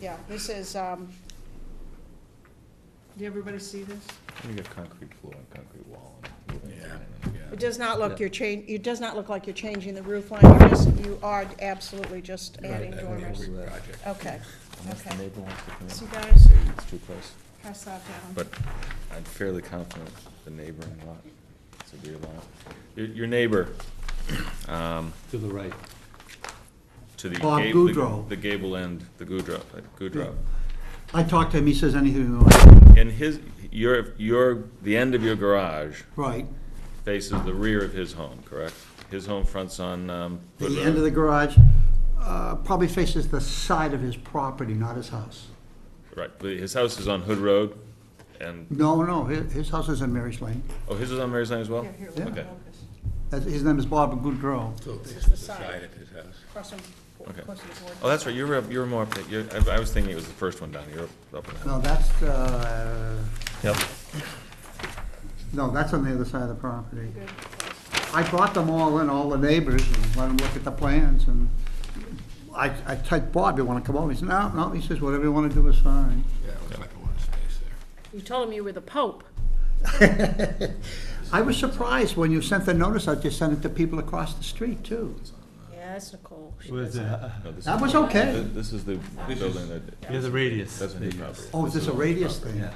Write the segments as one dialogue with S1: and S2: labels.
S1: yeah, this is, um, did everybody see this?
S2: You got concrete floor and concrete wall and. wood and
S3: Yeah.
S2: everything.
S1: It does not look,
S2: Yeah.
S1: you're change, it does not look like you're changing the roof line, you just, you are absolutely just adding
S3: Right, that'd be a
S1: dormers.
S3: great project.
S1: Okay,
S2: Unless the
S1: Okay.
S2: neighbor wants to come in.
S1: So you guys-
S2: Say it's too close,
S1: pass that down.
S2: but I'm fairly confident the neighboring lot, it's a rear lot. Your, your neighbor, um,
S4: To the right.
S2: to the.
S5: Bob
S2: gable- the-
S5: Goodrow.
S2: The gable end, the Goodrow, uh, Goodrow.
S5: I talked to him, he says anything you want.
S2: And his, your, your, the end of your garage
S5: Right.
S2: faces the rear of his home, correct? His home fronts on, um.
S5: The
S2: Goodrow.
S5: end of the garage uh, probably faces the side of his property, not his house.
S2: Right, but his house is on Hood Road, and,
S5: No, no, his, his house is in Mary's Lane.
S2: oh, his is on Mary's Lane as well?
S1: Here, here,
S5: Yeah.
S1: let me
S2: Okay.
S1: focus.
S5: That's- His name is Bob Goodrow.
S3: So this
S1: is the side.
S3: of his house.
S1: Cross them,
S2: Okay.
S1: close to the board.
S2: Oh, that's right, you're, up- you're more up, there. you're, I, I was thinking it was the first one down, you're up- up in that.
S5: No, that's, uh,
S2: Yep.
S5: no, that's on the other side of the property.
S1: Good.
S5: I brought them all in, all the neighbors, and let them look at the plans, and I, I typed Bob, you wanna come over? He said, no, no, he says, whatever you wanna do is fine.
S3: Yeah, it looks like a lot of space there.
S1: You told him you were the pope.
S5: I was surprised when you sent the notice out, you sent it to people across the street, too.
S2: Oh.
S1: Yeah, that's Nicole. She
S4: Where's
S1: does
S4: the, uh,
S2: No, this
S5: That
S2: is-
S5: was okay.
S2: th- This is the building that,
S4: yeah, the radius.
S2: that's a new
S4: Radius.
S2: property.
S5: Oh, is this a radius thing?
S4: Yeah.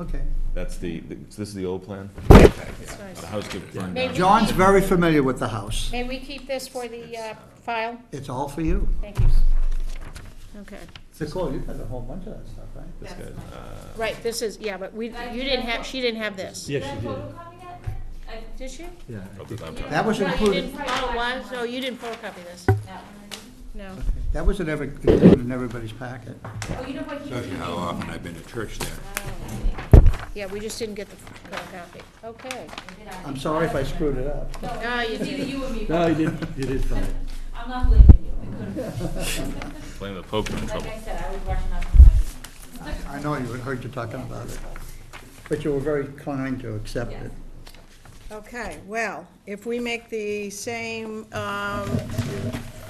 S5: Okay.
S2: That's the, the- so this is the old plan?
S1: That's nice.
S2: The house could burn
S6: Maybe-
S2: down.
S5: John's very familiar with the house.
S6: May we keep this for the uh, file?
S5: It's all for you.
S6: Thank you.
S1: Okay,
S5: Nicole, you've had a whole bunch of that stuff, right?
S2: This guy, uh,
S6: Right, this is, yeah, but we, you didn't have, she didn't have this.
S4: Yeah, she did.
S7: Uh,
S6: Did she?
S4: Yeah.
S2: up
S4: I
S2: at
S4: think-
S2: that time.
S5: That was included,
S6: Oh, why, so you didn't photocopy this? No.
S5: that was in every, included in everybody's packet.
S7: Oh,
S3: Shows you how often I've been to church there.
S6: Yeah, we just didn't get the photocopy. Okay.
S5: I'm sorry if I screwed it up.
S6: No, you didn't.
S4: No, you did, you did fine.
S7: I'm not blaming you. I couldn't.
S2: Blame the Pope in
S7: Like
S2: trouble.
S7: I said, I was rushing up to my.
S5: I know you heard you talking about it, but you were very kind to accept it.
S1: okay, well, if we make the same, um,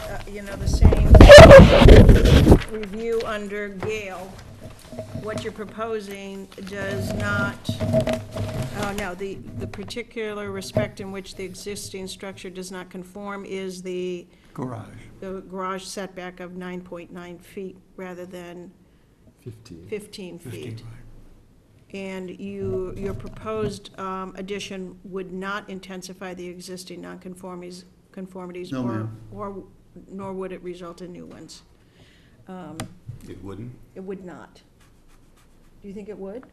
S1: uh, you know, the same review under Gale, what you're proposing does not, oh, no, the, the particular respect in which the existing structure does not conform is the
S5: Garage.
S1: the garage setback of 9.9 feet rather than 15 feet. And you, your proposed um, addition would not intensify the existing nonconformities, conformities.
S5: No,
S1: or-
S5: ma'am.
S1: Or, nor would it result in new ones. Um,
S3: It wouldn't?
S1: It would not. Do you think it would?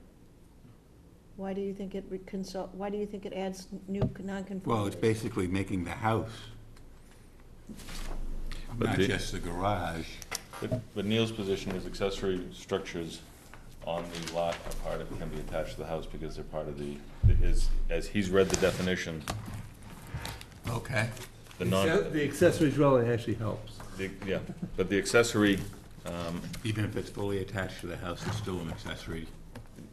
S1: Why do you think it would consult, why do you think it adds new nonconformities?
S3: Well, it's basically making the house,
S2: But
S3: not
S2: the-
S3: just the garage.
S2: But- But Neil's position is accessory structures on the lot are part of, can be attached to the house because they're part of the, is, as he's read the definition,
S3: Okay.
S2: the non.
S4: The accessory dwelling actually helps.
S2: The- Yeah, but the accessory, um,
S3: Even if it's fully attached to the house, it's still an accessory.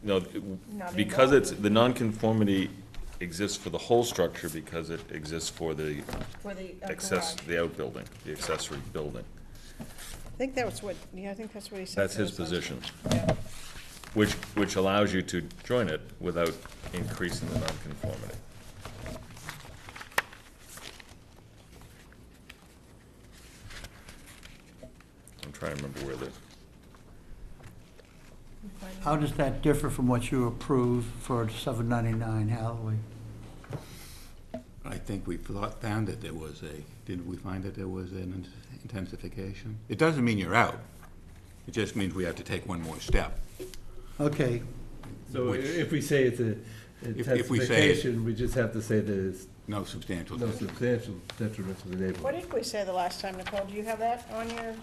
S2: no, it- because it's, the nonconformity exists for the whole structure because it exists for the
S1: For the uh,
S2: access,
S1: garage.
S2: the outbuilding, the accessory building.
S1: I think that was what, yeah, I think that's what he said.
S2: That's
S1: for
S2: his
S1: the-
S2: position,
S1: Yeah.
S2: which, which allows you to join it without increasing the nonconformity. I'm trying to remember where the,
S5: How does that differ from what you approved for 799 Hathaway?
S3: I think we thought, found that there was a, didn't we find that there was an intensification? It doesn't mean you're out. It just means we have to take one more step.
S5: Okay,
S4: So i-
S3: Which-
S4: if we say it's a
S3: If- if we say it-
S4: intensification, we just have to say that it's
S3: No substantial.
S4: no
S3: difference.
S4: substantial detriment to the
S1: What
S4: neighborhood.
S1: did we say the last time, Nicole? Do you have that on your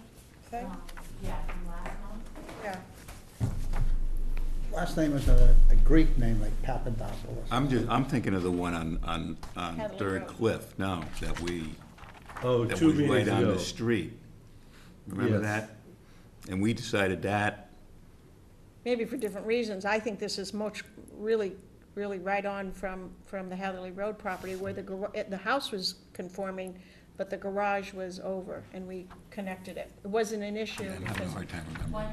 S1: thing?
S7: Um, Yeah, from last month.
S1: Yeah.
S5: last name was a a Greek name like Papadopoulos.
S3: I'm just, I'm thinking of the one on, on, on
S1: Hadley
S3: Third
S1: Road.
S3: Cliff, no, that we,
S4: Oh,
S3: that
S4: two
S3: was right
S4: meetings
S3: on
S4: ago.
S3: the street. Remember
S4: Yes.
S3: that? And we decided that,
S1: Maybe for different reasons. I think this is much, really, really right on from, from the Hatherley Road property where the, gar- eh, the house was conforming, but the garage was over and we connected it. It wasn't an issue
S3: I'm having a
S1: because
S3: hard time remembering.
S7: One